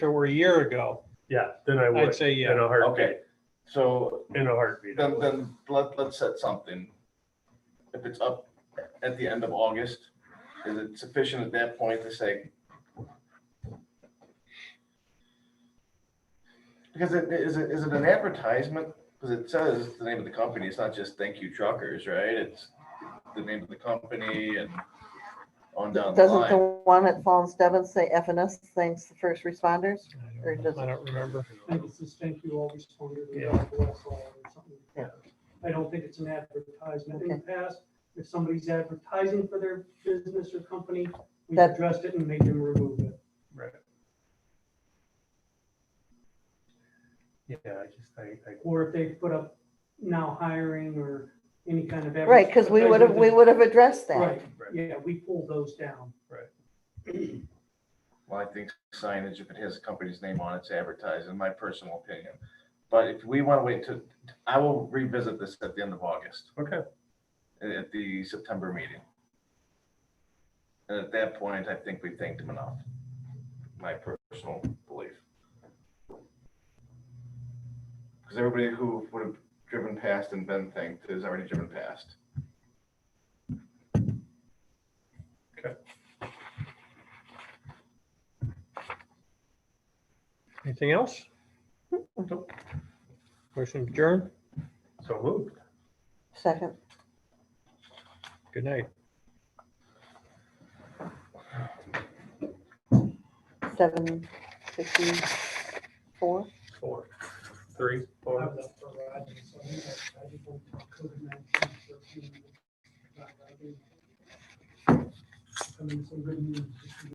it were a year ago, Yeah, then I I'd would, uh, say in yeah. a heartbeat, Okay, so in a heartbeat. I then, would. then let, let's set something. If it's up at the end of August, is it sufficient at that point to say? Because it, is it, is it an advertisement? Because it says the name of the company, it's not just thank you truckers, right? It's the name of the company and on down the Doesn't the line. one at Fallins Devens say FNS thanks the first responders? I Or don't- does- I don't remember. I think it's just thank you all responded to Yeah. Dr. Westlaw or something. Yeah. I don't think it's an advertisement. In the past, if somebody's advertising for their business or company, we That- addressed it and made them remove it. Right. Yeah, I just, I, I, Or if they put up now hiring or any kind of. Right, because we would have, we would have addressed that. Right, yeah, we pulled those down. Well, I think signage, if it has a company's name on it, it's advertised, in my personal opinion. But if we want to wait to, I will revisit this at the end of August. okay, at the September meeting. And at that point, I think we thanked him enough, my personal belief. Because everybody who would have driven past and been thanked has already driven past. Anything else? Motion adjourned. so moved. Second, Good night. seven fifty-four. Four, three, I four. was up for Rogers, so I think I- I just went to COVID-19 for a few minutes. I mean, some good news.